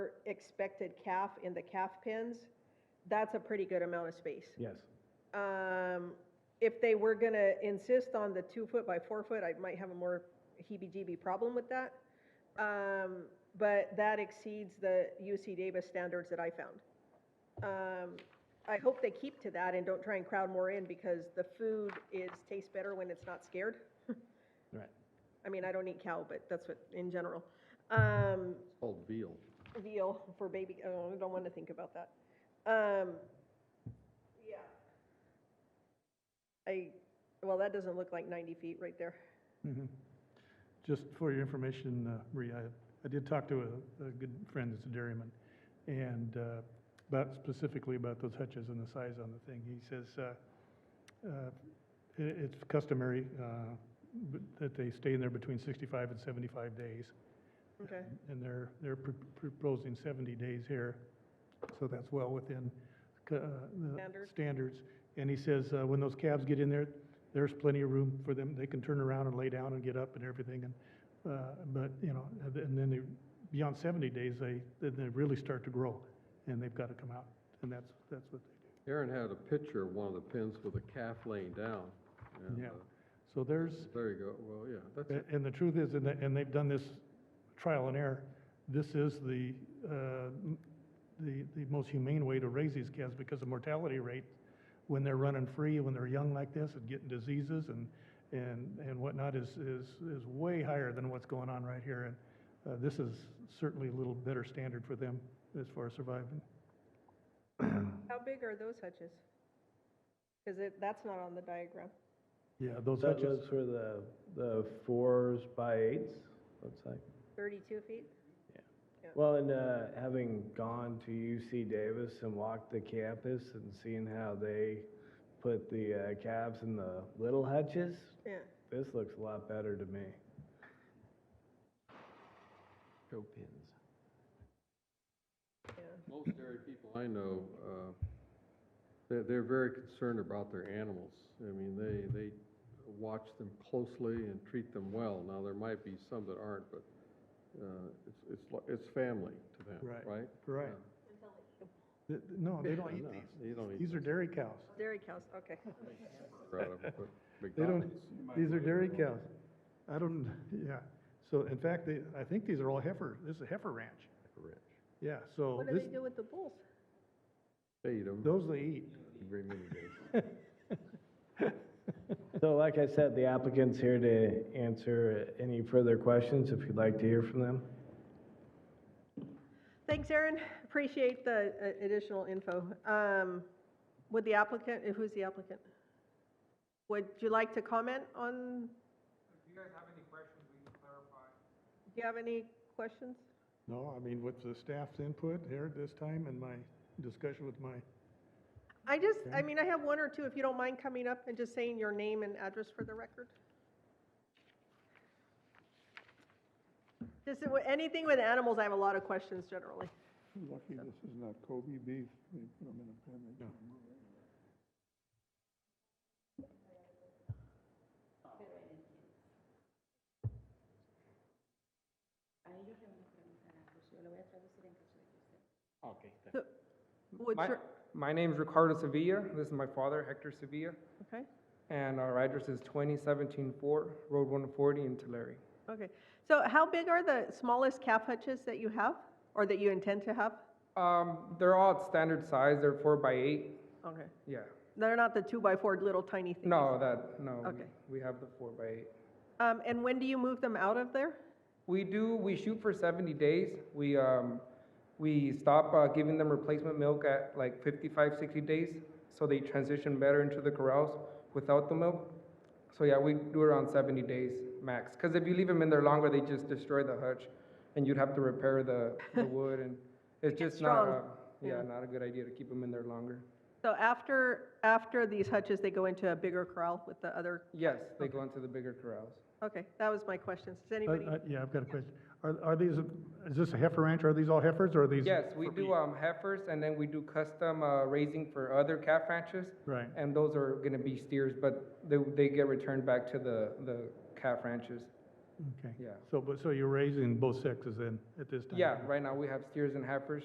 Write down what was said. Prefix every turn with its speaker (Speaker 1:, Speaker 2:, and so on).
Speaker 1: expected calf in the calf pens, that's a pretty good amount of space.
Speaker 2: Yes.
Speaker 1: Um, if they were gonna insist on the two foot by four foot, I might have a more heebie-jeebie problem with that. Um, but that exceeds the UC Davis standards that I found. Um, I hope they keep to that and don't try and crowd more in because the food is, tastes better when it's not scared.
Speaker 2: Right.
Speaker 1: I mean, I don't eat cow, but that's what, in general. Um,
Speaker 3: Called veal.
Speaker 1: veal for baby, oh, I don't want to think about that. Um, yeah. I, well, that doesn't look like 90 feet right there.
Speaker 4: Mhm. Just for your information, uh, Maria, I- I did talk to a, a good friend that's a dairyman, and uh, about, specifically about those hutches and the size on the thing. He says, uh, uh, i it's customary uh, b- that they stay in there between 65 and 75 days,
Speaker 1: Okay.
Speaker 4: and they're, they're pr- proposing 70 days here, so that's well within c- uh, the
Speaker 1: Standard.
Speaker 4: standards. And he says, uh, when those calves get in there, there's plenty of room for them, they can turn around and lay down and get up and everything, and, uh, but, you know, and then- and then they, beyond 70 days, they, then they really start to grow, and they've got to come out, and that's, that's what they
Speaker 3: Aaron had a picture of one of the pins with a calf laying down. and,
Speaker 4: do. Yeah,
Speaker 3: uh,
Speaker 4: so there's,
Speaker 3: There you go, well, yeah, that's it.
Speaker 4: A- And the truth is, and they- and they've done this trial and error, this is the, uh, m- the, the most humane way to raise these calves because the mortality rate, when they're running free, when they're young like this and getting diseases and, and, and whatnot is, is, is way higher than what's going on right here. And uh, this is certainly a little better standard for them as far as surviving.
Speaker 1: How big are those hutches? Because it, that's not on the diagram.
Speaker 4: Yeah, those
Speaker 2: That
Speaker 4: hutches.
Speaker 2: was for the, the fours by eights, looks like.
Speaker 1: 32 feet?
Speaker 2: Well, and uh, having gone to UC Davis and walked the campus and seeing how they put the uh, calves in the little hutches,
Speaker 1: Yeah.
Speaker 2: this looks a lot better to me.
Speaker 5: Show pins.
Speaker 1: Yeah.
Speaker 3: Most dairy people I know, uh, they're, they're very concerned about their animals. I mean, they, they watch them closely and treat them well. Now, there might be some that aren't, but uh, it's, it's, li- it's family to them,
Speaker 4: Right,
Speaker 3: right?
Speaker 4: right. Th- th- No, they don't
Speaker 3: Yeah,
Speaker 4: eat
Speaker 3: no,
Speaker 4: these.
Speaker 3: they don't eat
Speaker 4: These are
Speaker 3: those.
Speaker 4: dairy cows.
Speaker 1: Dairy cows, okay.
Speaker 4: They don't, these are dairy cows. I don't, yeah, so in fact, they, I think these are all heifer, this is a heifer ranch. Yeah, so
Speaker 1: What do
Speaker 4: this,
Speaker 1: they do with the bulls?
Speaker 3: They eat them.
Speaker 4: those they eat.
Speaker 2: So like I said, the applicant's here to answer any further questions if you'd like to hear from them.
Speaker 1: Thanks, Aaron. Appreciate the uh, additional info. Um, Would the applicant, uh, who's the applicant? Would you like to comment on,
Speaker 6: If you guys have any questions, we can clarify.
Speaker 1: do you have any questions?
Speaker 4: No, I mean, with the staff's input here at this time and my discussion with my,
Speaker 1: I just, I mean, I have one or two, if you don't mind coming up and just saying your name and address for the record. Just uh, anything with animals, I have a lot of questions generally.
Speaker 7: Lucky this is not Kobe beef, they put them in a pen, they can't move it.
Speaker 8: A ellos le van a preguntar a José, yo lo voy a traducir en caso de que usted.
Speaker 1: So, What's
Speaker 9: My,
Speaker 1: your,
Speaker 9: my name's Ricardo Sevilla. This is my father, Hector Sevilla.
Speaker 1: okay,
Speaker 9: And our address is 2017 Fort, Road 140 in Tulare.
Speaker 1: okay. So how big are the smallest calf hutches that you have, or that you intend to have?
Speaker 9: Um, they're all at standard size. They're 4 by 8
Speaker 1: Okay.
Speaker 9: Yeah.
Speaker 1: They're not the two-by-four little tiny things?
Speaker 9: No, that, no. we-
Speaker 1: Okay.
Speaker 9: We have the 4 by 8
Speaker 1: Um, and when do you move them out of there?
Speaker 9: We do, we shoot for 70 days. We, um, we stop uh, giving them replacement milk at like 55, 60 days so they transition better into the corrals without the milk. So yeah, we do around 70 days max. Because if you leave them in there longer, they just destroy the hutch and you'd have to repair the, the wood and it's
Speaker 1: gets
Speaker 9: just not, a,
Speaker 1: strong.
Speaker 9: yeah,
Speaker 1: Yeah.
Speaker 9: not a good idea to keep them in there longer.
Speaker 1: So after, after these hutches, they go into a bigger corral with the other,
Speaker 9: Yes, they go into the bigger corrals.
Speaker 1: okay, that was my question. Does
Speaker 4: I-
Speaker 1: anybody?
Speaker 4: I- yeah, I've got a question. Are, are these, is this a heifer ranch? Are these all heifers or are these?
Speaker 9: Yes, we do um, heifers, and then we do custom uh, raising for other calf ranches.
Speaker 4: Right.
Speaker 9: And those are going to be steers, but they, they get returned back to the, the calf ranches.
Speaker 4: Okay.
Speaker 9: Yeah.
Speaker 4: So, but, so you're raising both sexes then at this time?
Speaker 9: Yeah, right now we have steers and heifers.